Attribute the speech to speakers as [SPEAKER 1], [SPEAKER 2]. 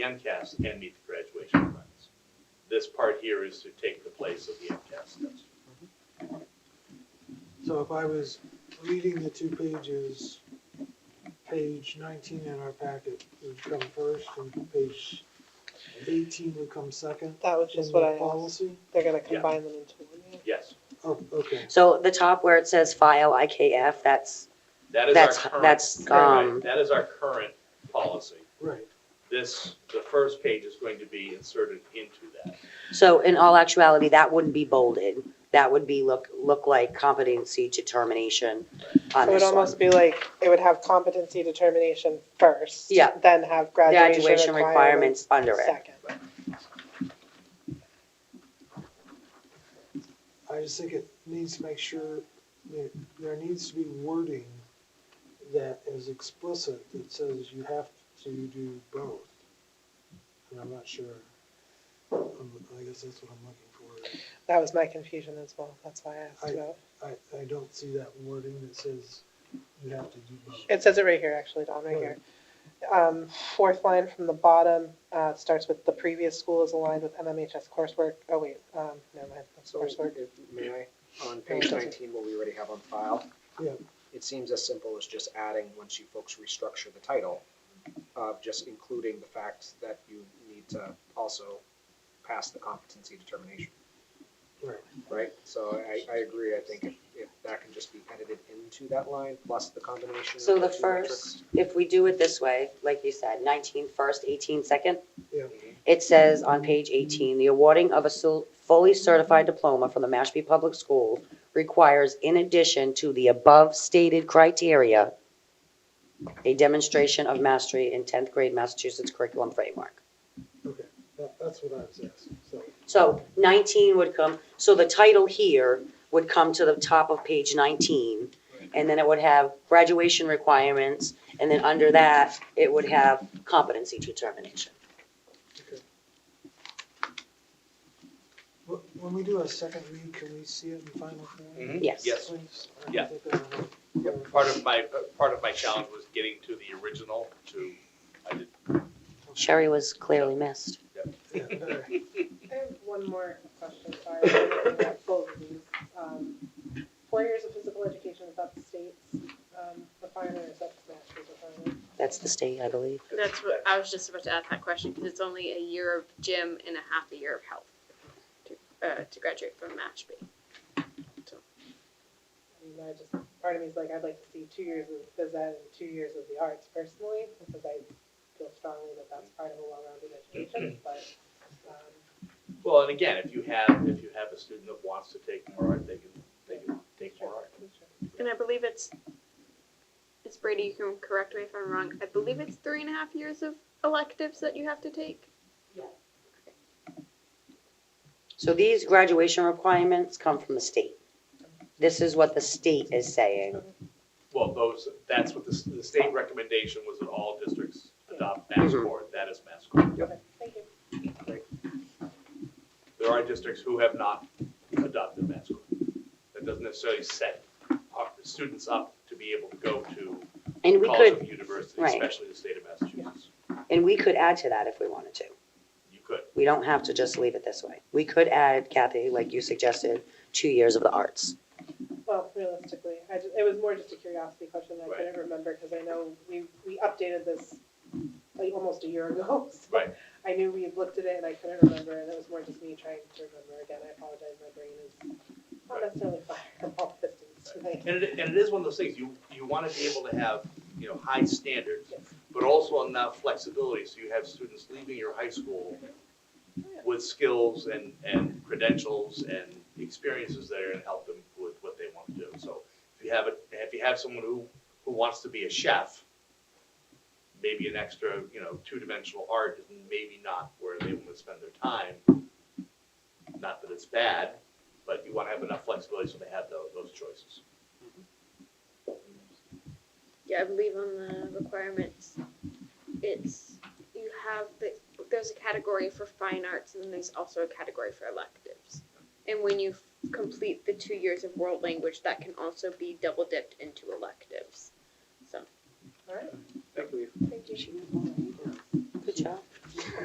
[SPEAKER 1] the MCAS and meet the graduation requirements. This part here is to take the place of the MCAS test.
[SPEAKER 2] So if I was reading the two pages, page nineteen in our packet would come first and page eighteen would come second.
[SPEAKER 3] That was just
[SPEAKER 2] in
[SPEAKER 3] what
[SPEAKER 2] the
[SPEAKER 3] I asked.
[SPEAKER 2] Policy?
[SPEAKER 3] They're gonna combine them into one. yeah.
[SPEAKER 1] Yes,
[SPEAKER 2] Oh, okay.
[SPEAKER 4] So the top where it says file IKF, that's,
[SPEAKER 1] that is our
[SPEAKER 4] that's,
[SPEAKER 1] current.
[SPEAKER 4] that's,
[SPEAKER 1] right,
[SPEAKER 4] um,
[SPEAKER 1] That is our current policy.
[SPEAKER 2] Right.
[SPEAKER 1] This, the first page is going to be inserted into that.
[SPEAKER 4] so in all actuality, that wouldn't be bolded. That would be look, look like competency determination on
[SPEAKER 3] It would
[SPEAKER 4] this one.
[SPEAKER 3] almost be like, it would have competency determination first.
[SPEAKER 4] Yeah.
[SPEAKER 3] Then have graduation
[SPEAKER 4] Graduation
[SPEAKER 3] requirements
[SPEAKER 4] requirements under it.
[SPEAKER 3] second.
[SPEAKER 2] I just think it needs to make sure that there needs to be wording that is explicit that says you have to do both. And I'm not sure. Um, I guess that's what I'm looking for.
[SPEAKER 3] That was my confusion as well. That's why I asked
[SPEAKER 2] I-
[SPEAKER 3] about.
[SPEAKER 2] I, I don't see that wording that says you have to do both.
[SPEAKER 3] It says it right here, actually, Don, right here. Um, fourth line from the bottom, uh, starts with the previous school is aligned with MMHS coursework. Oh, wait, um, never mind, that's
[SPEAKER 5] So,
[SPEAKER 3] coursework.
[SPEAKER 5] if- may I, on page nineteen, what we already have on file?
[SPEAKER 2] Yeah.
[SPEAKER 5] It seems as simple as just adding, once you folks restructure the title, uh, just including the fact that you need to also pass the competency determination,
[SPEAKER 2] Right.
[SPEAKER 5] right? So I, I agree, I think if, if that can just be edited into that line, plus the combination of
[SPEAKER 4] So the
[SPEAKER 5] the two metrics.
[SPEAKER 4] first, if we do it this way, like you said, 19 first, 18 second,
[SPEAKER 2] Yeah.
[SPEAKER 4] it says on page 18, the awarding of a sul- fully certified diploma from the Mashpee Public School requires, in addition to the above stated criteria, a demonstration of mastery in 10th grade Massachusetts curriculum framework.
[SPEAKER 2] Okay, that, that's what I was asking, so.
[SPEAKER 4] So 19 would come, so the title here would come to the top of page 19, and then it would have graduation requirements, and then under that, it would have competency determination.
[SPEAKER 2] wh- When we do a second read, can we see it in final form?
[SPEAKER 1] Mhm.
[SPEAKER 4] Yes.
[SPEAKER 1] Yes.
[SPEAKER 2] Please? I
[SPEAKER 1] Yeah.
[SPEAKER 2] think that'll help.
[SPEAKER 1] Part of my, uh, part of my challenge was getting to the original to, I did,
[SPEAKER 4] Sherry was clearly missed.
[SPEAKER 2] Yeah, all right.
[SPEAKER 6] I have one more question, sorry, I'm looking at both of these. Um, Four years of physical education, is that the state's um, requirement, or is that the master's requirement?
[SPEAKER 4] That's the state, I believe.
[SPEAKER 7] That's what I was just about to ask that question because it's only a year of gym and a half a year of health to, uh, to graduate from Mashpee.
[SPEAKER 6] I mean, I just, part of me is like, I'd like to see two years of phys ed and two years of the arts personally, because I feel strongly that that's part of a well-rounded education, but, um,
[SPEAKER 1] well, and again, if you have, if you have a student that wants to take more art, they can, they can take more art.
[SPEAKER 7] And I believe it's, it's Brady, you can correct me if I'm wrong. I believe it's three and a half years of electives that you have to take.
[SPEAKER 4] So these graduation requirements come from the state. This is what the state is saying.
[SPEAKER 1] Well, those, that's what the, s- the state recommendation was that all districts adopt
[SPEAKER 4] Mm-hmm.
[SPEAKER 1] MassCore, that is MassCore.
[SPEAKER 6] okay, thank you.
[SPEAKER 1] There are districts who have not adopted MassCore. That doesn't necessarily set our students up to be able to go to
[SPEAKER 4] And we
[SPEAKER 1] college
[SPEAKER 4] could,
[SPEAKER 1] and university,
[SPEAKER 4] right.
[SPEAKER 1] especially the state of Massachusetts.
[SPEAKER 4] and we could add to that if we wanted to.
[SPEAKER 1] You could,
[SPEAKER 4] We don't have to just leave it this way. We could add, Kathy, like you suggested, two years of the arts.
[SPEAKER 6] Well, realistically, I ju- it was more just a curiosity question that I
[SPEAKER 1] Right.
[SPEAKER 6] couldn't remember, because I know we, we updated this like almost a year ago. so
[SPEAKER 1] Right.
[SPEAKER 6] I knew we had looked at it and I couldn't remember, and it was more just me trying to remember again, I apologize, my brain is not
[SPEAKER 1] Right.
[SPEAKER 6] necessarily firing on all pistons tonight.
[SPEAKER 1] and it, and it is one of those things, you, you want to be able to have, you know, high standards,
[SPEAKER 6] Yes.
[SPEAKER 1] but also enough flexibility, so you have students leaving your high school with skills and, and credentials and experiences that are gonna help them with what they want to do. So if you have a, if you have someone who, who wants to be a chef, maybe an extra, you know, two-dimensional art is maybe not where they want to spend their time. Not that it's bad, but you want to have enough flexibility so they have those, those choices.
[SPEAKER 7] Yeah, I believe on the requirements, it's, you have, the there's a category for fine arts and then there's also a category for electives. And when you f- complete the two years of world language, that can also be double dipped into electives. So.
[SPEAKER 6] All right,
[SPEAKER 5] Thank you.
[SPEAKER 6] thank you.
[SPEAKER 4] Good job.